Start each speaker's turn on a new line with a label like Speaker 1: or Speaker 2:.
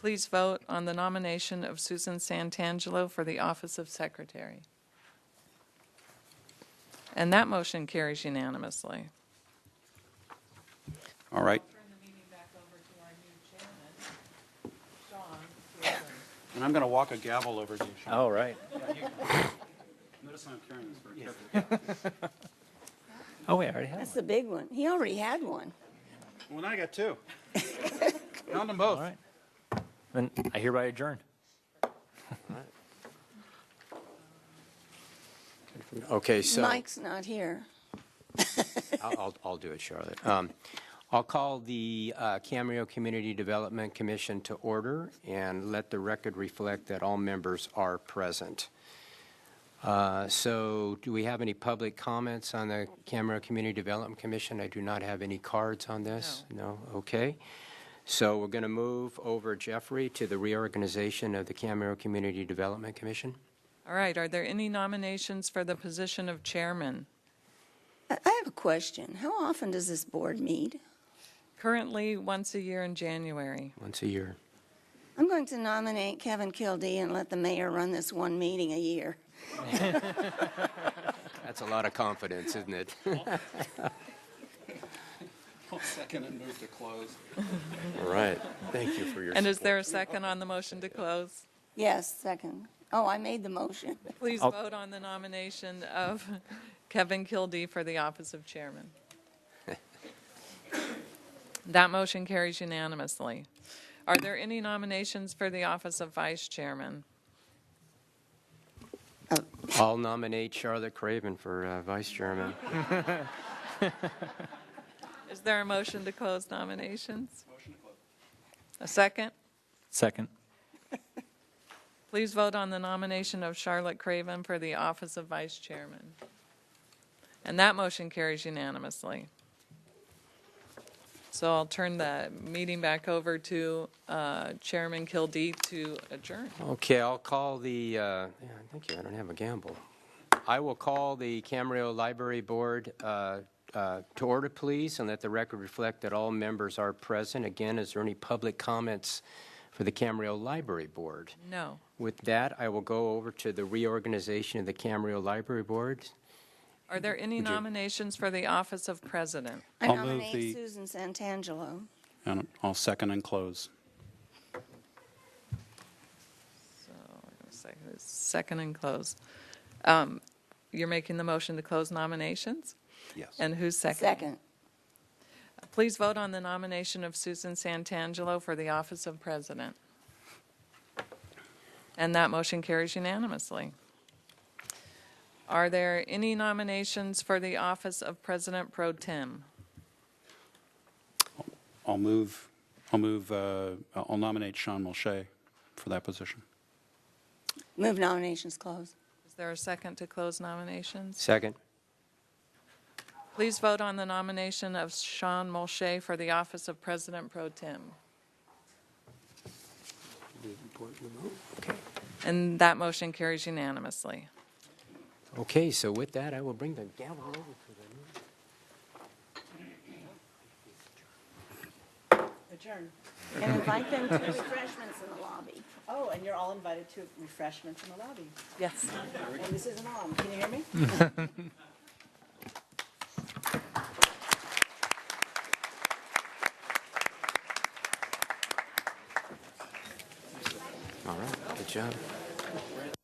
Speaker 1: Please vote on the nomination of Susan Santangelo for the office of secretary. And that motion carries unanimously.
Speaker 2: All right.
Speaker 1: Turn the meeting back over to our new chairman, Sean.
Speaker 2: And I'm going to walk a gavel over to you, Sean.
Speaker 3: All Oh, right.
Speaker 2: Notice I'm carrying this very carefully.
Speaker 3: Oh, wait, I already have
Speaker 4: That's
Speaker 3: one.
Speaker 4: the big one. He already had one.
Speaker 2: Well, now I got two. Found them
Speaker 3: All
Speaker 2: both.
Speaker 3: right. Then I hereby adjourn.
Speaker 5: Okay, so I'll,
Speaker 4: Mike's not here.
Speaker 5: I'll- I'll do it, Charlotte. Um, I'll call the uh, Cameo Community Development Commission to order and let the record reflect that all members are present. Uh, So do we have any public comments on the Cameo Community Development Commission? I do not have any cards on this. No? Okay. So we're going to move over, Jeffrey, to the reorganization of the Cameo Community Development Commission.
Speaker 1: All right, are there any nominations for the position of chairman?
Speaker 4: I I have a question. How often does this board meet?
Speaker 1: Currently, once a year in January.
Speaker 5: Once a year.
Speaker 4: I'm going to nominate Kevin Kildee and let the mayor run this one meeting a year.
Speaker 5: That's a lot of confidence, isn't it?
Speaker 2: I'll second and move to close.
Speaker 5: All right. Thank you for your
Speaker 1: And is there a second on the motion to close?
Speaker 4: Yes, second. Oh, I made the motion.
Speaker 1: Please
Speaker 3: I'll-
Speaker 1: vote on the nomination of Kevin Kildee for the office of chairman. That motion carries unanimously. Are there any nominations for the office of vice chairman?
Speaker 5: I'll nominate Charlotte Craven for uh, vice chairman.
Speaker 1: Is there a motion to close nominations? A second?
Speaker 3: Second.
Speaker 1: Please vote on the nomination of Charlotte Craven for the office of vice chairman. And that motion carries unanimously. So I'll turn the meeting back over to uh, Chairman Kildee to adjourn.
Speaker 5: Okay, I'll call the, uh, yeah, thank you, I don't have a gamble. I will call the Camarillo Library Board uh, uh, to order, please, and let the record reflect that all members are present. Again, is there any public comments for the Camarillo Library Board?
Speaker 1: No.
Speaker 5: With that, I will go over to the reorganization of the Camarillo Library Board.
Speaker 1: Are there any nominations for the office of president?
Speaker 4: I
Speaker 2: I'll move the-
Speaker 4: nominate Susan Santangelo.
Speaker 2: And I'll second and close.
Speaker 1: So, we're gonna say who's Second and close. Um, You're making the motion to close nominations?
Speaker 2: Yes.
Speaker 1: And who's second?
Speaker 4: Second.
Speaker 1: Please vote on the nomination of Susan Santangelo for the office of president. And that motion carries unanimously. Are there any nominations for the office of president pro tem?
Speaker 2: I'll move, I'll move, uh, I'll nominate Sean Mulchay for that position.
Speaker 4: Move nominations closed.
Speaker 1: Is there a second to close nominations?
Speaker 5: Second.
Speaker 1: Please vote on the nomination of Sean Molche for the office of president pro tem. And that motion carries unanimously.
Speaker 5: Okay, so with that, I will bring the gavel over to the
Speaker 6: Adjourn.
Speaker 4: And invite them to refreshments in the lobby.
Speaker 6: Oh, and you're all invited to refreshments in the lobby.
Speaker 1: Yes.
Speaker 6: And this isn't on. Can you hear me?
Speaker 5: All right, good job.